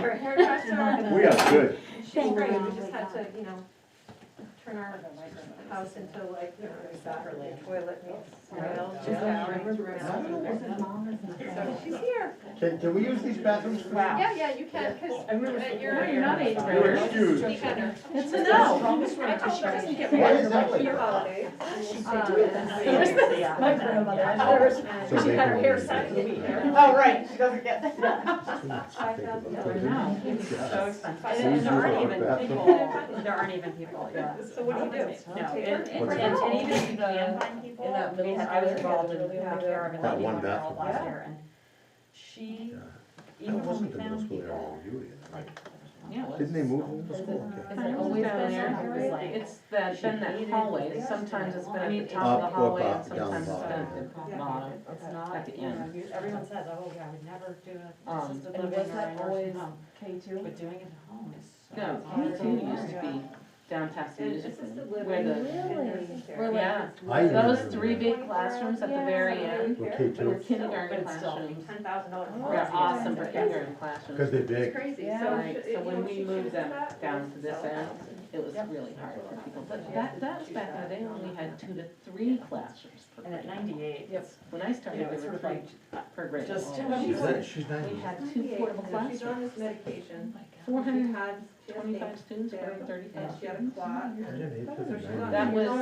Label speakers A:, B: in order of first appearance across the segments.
A: her haircuts are.
B: We are good.
A: She's great, we just had to, you know, turn our house into like, you know, toilet meets grill, just outrage. So she's here.
B: Can, can we use these bathrooms? please?
C: Wow.
A: Yeah, yeah, you can, because
C: No,
A: you're.
C: you're not eighth
B: You're
C: graders.
B: excused.
A: Speak under.
C: It's a no.
A: I told her it doesn't get
B: Why
A: worse.
B: is that like
A: Your
B: that?
A: holidays. Uh,
C: My grandmother.
B: So
A: She
B: they
A: had her
B: will
A: hair
B: be-
A: started in here.
C: Oh, right, she doesn't get.
A: Five thousand dollars.
C: No, it's so expensive. And there aren't even people, there aren't even people, yeah.
A: So what do you do?
C: No, and,
A: Take her?
C: and and- and even
D: uh,
C: if you can find people,
E: in that middle
C: and I was
E: square,
C: involved in
E: there's
C: taking
E: really one
C: care of a
B: That
C: lady
B: one
C: one girl
B: bathroom.
C: last year, and she,
B: That
C: even when
B: wasn't
C: we
B: the middle
C: found
B: school area
C: people.
B: we were in, right?
C: Yeah, it was-
B: Didn't they move the middle school? Okay.
E: Is it always been that
C: It was like-
E: area? It's that, been that hallway, sometimes it's been
C: I
E: at
C: mean,
E: the
C: it's
E: top of
B: Up,
E: the
B: up,
E: hallway and
B: up, down the
E: sometimes it's been
B: bottom.
D: oh,
E: at the bottom.
D: It's not,
C: At the
D: you know,
C: end.
D: you- everyone says, oh, yeah, I would never do a
E: Um,
D: assisted
E: and
D: living or
E: was
D: a
E: that
D: nursing
E: always
D: home,
E: K two?
D: but doing it at home is so.
E: No,
D: hard.
E: K two used to be down past the music room, where the,
A: Really?
E: yeah,
B: I even
E: those
B: remember
E: three
B: that.
E: big classrooms at the very end,
B: Were K
E: were
B: two,
E: kindergarten
D: But it's still-
E: classrooms.
A: Ten thousand dollars.
E: They're awesome for kindergarten
B: because
E: classrooms.
A: Oh,
B: they're
A: It's
B: big.
A: crazy.
E: Yeah.
A: So
E: Right,
A: should-
E: so
A: you know,
E: when
A: she
E: we moved
A: chooses
E: them
A: that,
E: down to this
A: so-
E: end, it was really hard for people, but that, that was back in the day when we had two to three classrooms per
D: And at
E: grade.
D: ninety-eight,
E: Yep,
D: it's,
E: when I
D: you know,
E: started,
D: it's
E: there
D: sort
E: were
D: of
E: three
D: like,
E: per grade.
D: just.
B: She's
D: She's
B: nine, she's
E: We
B: nine.
E: had two
A: Ninety-eight,
E: portable
A: you know, She's on
E: classrooms,
A: this medication.
E: four
A: She
E: hundred
A: had, she had things,
E: twenty-five students for
A: and
E: thirty-five.
A: she had a clot.
B: I didn't
A: So
B: hate that
A: she
B: nine.
A: got-
E: That was-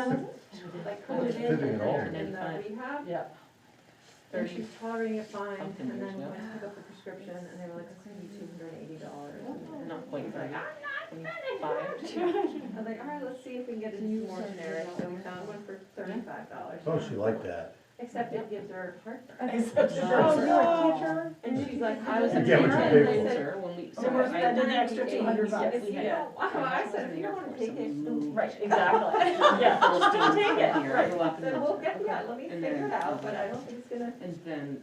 A: Like
E: that
A: put it
E: was
A: in and
B: fitting at all.
A: then in the rehab, and
D: Yeah.
E: Thirty.
A: she was tolerating it fine,
E: Something
A: and
E: years
A: then
E: ago.
A: went to pick up the prescription, and they were like, it's gonna be two hundred and eighty dollars.
E: Not quite thirty. Twenty-five.
A: "Ah." I was like, all right, let's see if we can get a new more generic, so we found one for thirty-five dollars.
B: Oh, she liked that.
A: Except it gives her heartburn.
D: Except
E: Oh,
D: for-
E: you
A: were And she's like,
E: I was a
B: You
E: teacher
B: get what
E: and
B: you
E: I
B: pay for.
E: said, when we. so
D: So we're
E: I-
D: spending an extra 200 bucks.
E: Yes, we
A: If you
E: had.
A: don't, wow, Oh, I said, if you don't wanna take it, then
D: Right, exactly, yeah,
E: Full
D: don't
E: students
D: take
E: come
D: it,
E: here,
D: right.
E: go up and then-
A: we'll get, yeah, let me
E: And
A: figure
E: then-
A: it out, but I don't think it's gonna.
E: And then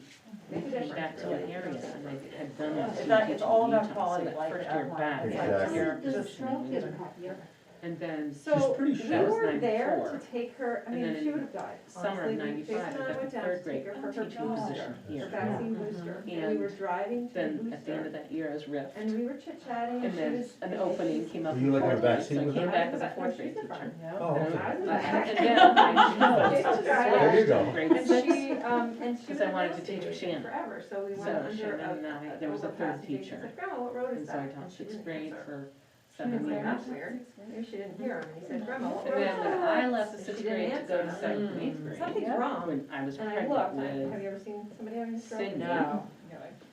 E: we came back to an area and they had done that.
D: It's not- it's all about
E: Utah,
D: quality
E: so
D: of
E: that
D: life
E: First
D: at
E: year
D: home.
E: back.
D: It's
E: like,
B: Exactly.
E: you're
D: This is
E: just- And then
A: So, we
B: pretty sure. That
E: was
A: were there
E: 94.
A: to take her, I
E: And
A: mean,
E: then
A: she
E: in
A: would have died,
E: summer
A: honestly,
E: of
A: we- Jason
E: ninety-five,
A: and
E: I
A: I
E: got
A: went
E: the
A: down to
E: third
A: take
E: grade
A: her for her
E: teaching
A: booster.
E: position
A: Her
E: here.
A: vaccine booster, and we were driving to
E: Uh-huh. Then at the end of
A: booster,
E: that year, I was ripped.
A: and we were chit-chatting, and
E: And
A: she
E: then
A: was.
E: an opening came up.
B: Were you
E: in
B: like on
E: fourth grade,
B: vaccine
E: so I
B: with
E: came
B: her?
E: back as a fourth grade
A: She's in
E: teacher.
A: front.
B: Oh, okay.
A: I was in the back.
E: And then I
A: It's just-
B: There you go.
E: grade
A: And
E: six.
A: she, um, and she was
E: Because I wanted to
A: investigating
E: teach Shannon.
A: forever, so we
E: So
A: went under
E: Shannon and I-
A: a,
E: there was a third
A: overpass, Jason
E: teacher.
A: said, Grandma, what road is
E: And so
A: that?
E: I taught
A: And she
E: sixth
A: didn't
E: grade
A: answer.
E: for
A: She was
E: seven
A: like,
E: years.
A: that's weird, maybe she didn't hear him, and he
E: Mm-hmm.
A: said, Grandma, what
E: And
A: road is
E: then when I
A: that?
E: left the
A: She
E: sixth
A: didn't
E: grade to go to
A: answer.
E: seventh and eighth
D: Mm.
E: grade,
A: Something's wrong,
E: when I was
A: and I
E: pregnant
A: looked, I-
E: with,
A: have you ever seen somebody having a stroke?
E: Cindy.
D: No.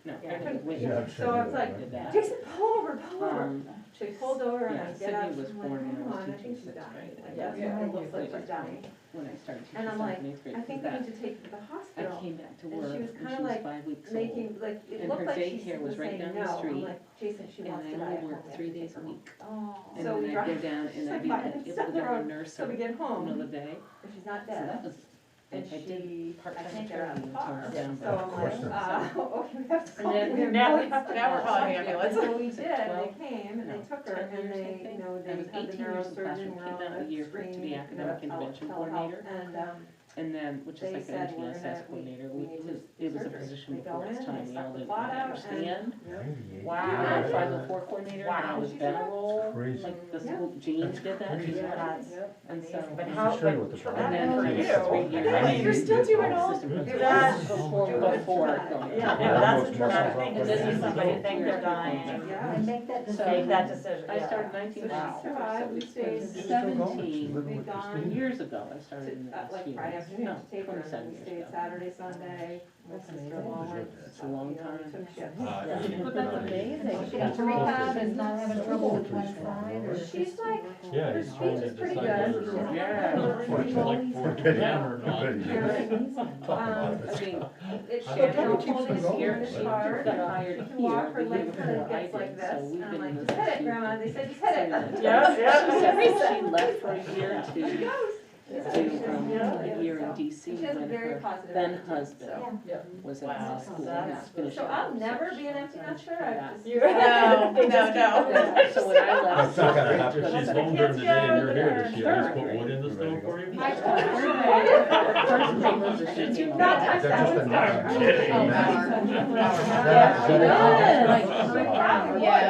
E: no,
D: Yeah.
E: pregnant with.
B: Yeah, I'm sure
A: So I
B: you
A: was
B: were,
A: like-
B: right?
E: did that.
A: Jason, pull over, pull over,
E: Um,
A: so he pulled over and
E: yeah,
A: I get
E: Cindy
A: out, I'm
E: was
A: like,
E: born when I
A: come
E: was
A: on, I
E: teaching
A: think she's
E: sixth
A: dying,
E: grade.
A: like,
D: Yeah.
A: that's what it looks
E: Yeah.
A: like she's dying.
E: when I started teaching
A: And I'm
E: seventh
A: like,
E: and eighth grade.
A: I think we
E: that.
A: need to take her to the
E: I
A: hospital.
E: came back
A: And
E: to
A: she
E: work when
A: was
E: she
A: kinda
E: was
A: like
E: five weeks old.
A: making, like, it
E: And
A: looked
E: her
A: like she
E: daycare
A: was
E: was right
A: saying
E: down the
A: no, I'm
E: street,
A: like, Jason, she
E: And
A: wants to die.
E: I only
A: at home, we
E: worked
A: have
E: three
A: to take
E: days
A: her
E: a
A: home."
E: week.
D: Oh.
E: And
A: So we
E: then I'd go
A: drive-
E: down and
A: she's
E: I'd
A: like,
E: be
A: "Five
E: at,
A: minutes
E: it
A: down
E: was
A: the
E: down
A: road,
E: in nurse,
A: So
E: so
A: we
E: that
A: get home,
E: was, I
A: and she's not dead,
E: that was, I I
A: and
E: did
A: she, I
E: part-time
A: can't get her out of the
E: training
A: car.
E: until
A: So
E: November.
B: Of
A: I'm
B: course
A: like,
E: not.
A: uh, okay, we have to
E: And
A: call.
E: then-
A: we
D: Now
A: really
D: we-
A: have to
D: now we're
A: call
D: calling
A: somebody."
D: ambulance.
A: So we did, and
E: Twelve,
A: they came, and
E: no,
A: they took her, and
E: 10 years, I
A: they, you
E: think.
A: know, they
E: I was
A: had the
E: 18 years in the
A: neurosurgeon,
E: classroom,
A: we're
E: came
A: all
E: out
A: like
E: a year for it to be
A: screaming, you know,
E: academic intervention
A: telehealth,
E: coordinator.
A: And, um,
E: And then, which is
A: They
E: like an
A: said
E: international
A: we're
E: science
A: gonna- we-
E: coordinator,
A: we
E: we,
A: need
E: it
A: to
E: was, it was a
A: surgery.
E: position
A: We
E: before
A: go in,
E: its time, we
A: suck
E: all
A: the
E: didn't
A: blood out, and-
E: understand.
B: Ninety-eight.
E: I
D: Wow.
E: had a
B: Yeah.
E: five oh four coordinator, and I
D: Wow.
E: was
A: She's
E: Ben
A: a-
B: It's
E: roll,
B: Crazy.
E: like the
A: Yeah.
E: school, Jean did that,
B: That's
E: she's
B: crazy.
E: what I, and so.
D: But
B: I'm
D: how,
B: not sure what
D: but
B: the
D: try
B: problem
E: And
D: that
E: then
B: is.
D: for
E: for three
B: It's like
D: you.
E: years.
D: Really? You're still doing all
E: Assistant
B: Yeah.
E: principal.
D: That's-
E: Before,
A: do it.
E: before
A: Try.
E: going.
D: Yeah,
B: Yeah,
D: no, that's
B: most
D: the traumatic
B: muscles are
D: thing, is to see
B: broken.
D: somebody think they're dying,
A: yeah.
F: And make that
E: So-
F: decision.
D: make that decision,
E: I
D: yeah.
E: started nineteen
A: So she
E: ninety-four,
A: survived,
E: so
A: we
E: it's
A: stayed-
E: been
A: She's
B: still going. She's
E: seventeen
B: living with
A: We've
B: this
A: gone
B: thing.
E: years ago, I started in the
A: to, uh,
E: last
A: like
E: year.
A: Friday afternoon to
E: No,
A: take her, and then we
E: 27
A: stayed
E: years ago.
A: Saturday, Sunday, my sister in law went.
E: It's a long time.
B: But
E: that's
F: She got to rehab and not having trouble with one side or.
A: She's like,
G: Yeah,
A: her
G: he's trying
A: speech
G: to
A: is pretty
G: decide
A: good.
G: whether
A: She's
G: to.
E: Yeah.
G: Like, like, for
B: I bet you-
G: them or not.
B: I bet you-
A: Um, It's
E: I mean,
G: I
A: Shannon,
B: don't
A: I'll
B: think it
A: hold
B: keeps
A: it
B: them
A: here
B: going.
A: in
E: she
A: the
B: It's
A: car.
E: got hired
A: She can walk
E: here
A: her
E: the year
A: leg
E: before
A: kind of
E: I
A: gets like
E: did,
A: this, and
E: so we've
A: I'm
E: been in
A: like,
E: this.
A: just hit it, grandma, they said, just hit it.
E: She
D: Yes,
E: said
D: yes.
E: when she left for a year to,
A: She
E: to,
A: goes. She's like, she doesn't
E: um,
A: know
E: a
A: it,
E: year in
A: so.
E: DC
A: She has a
E: when
A: very
E: her
A: positive.
E: then
A: attitude,
E: husband
A: so.
E: was in
D: Wow.
E: high school and
D: That's-
E: was finishing.
A: So I'll
E: up,
A: never
E: so
A: be an empty nester,
E: Yeah.
A: I've just.
D: You- No, no,
A: Just keep
D: no.
A: doing that.
E: So when I left.
B: That's not gonna happen.
G: If
E: She's
G: she's home during the day and you're here, does she at least put
E: Sure.
G: wood in the stove for you?
A: I told her,
E: First thing was that she came
A: Not touch
E: back.
A: that
B: just
A: one.
B: another
A: Sorry.
B: kid,
E: Oh,
B: man.
E: Howard.
B: That's-
E: Yes.
B: that's-
E: Like,
A: Yeah.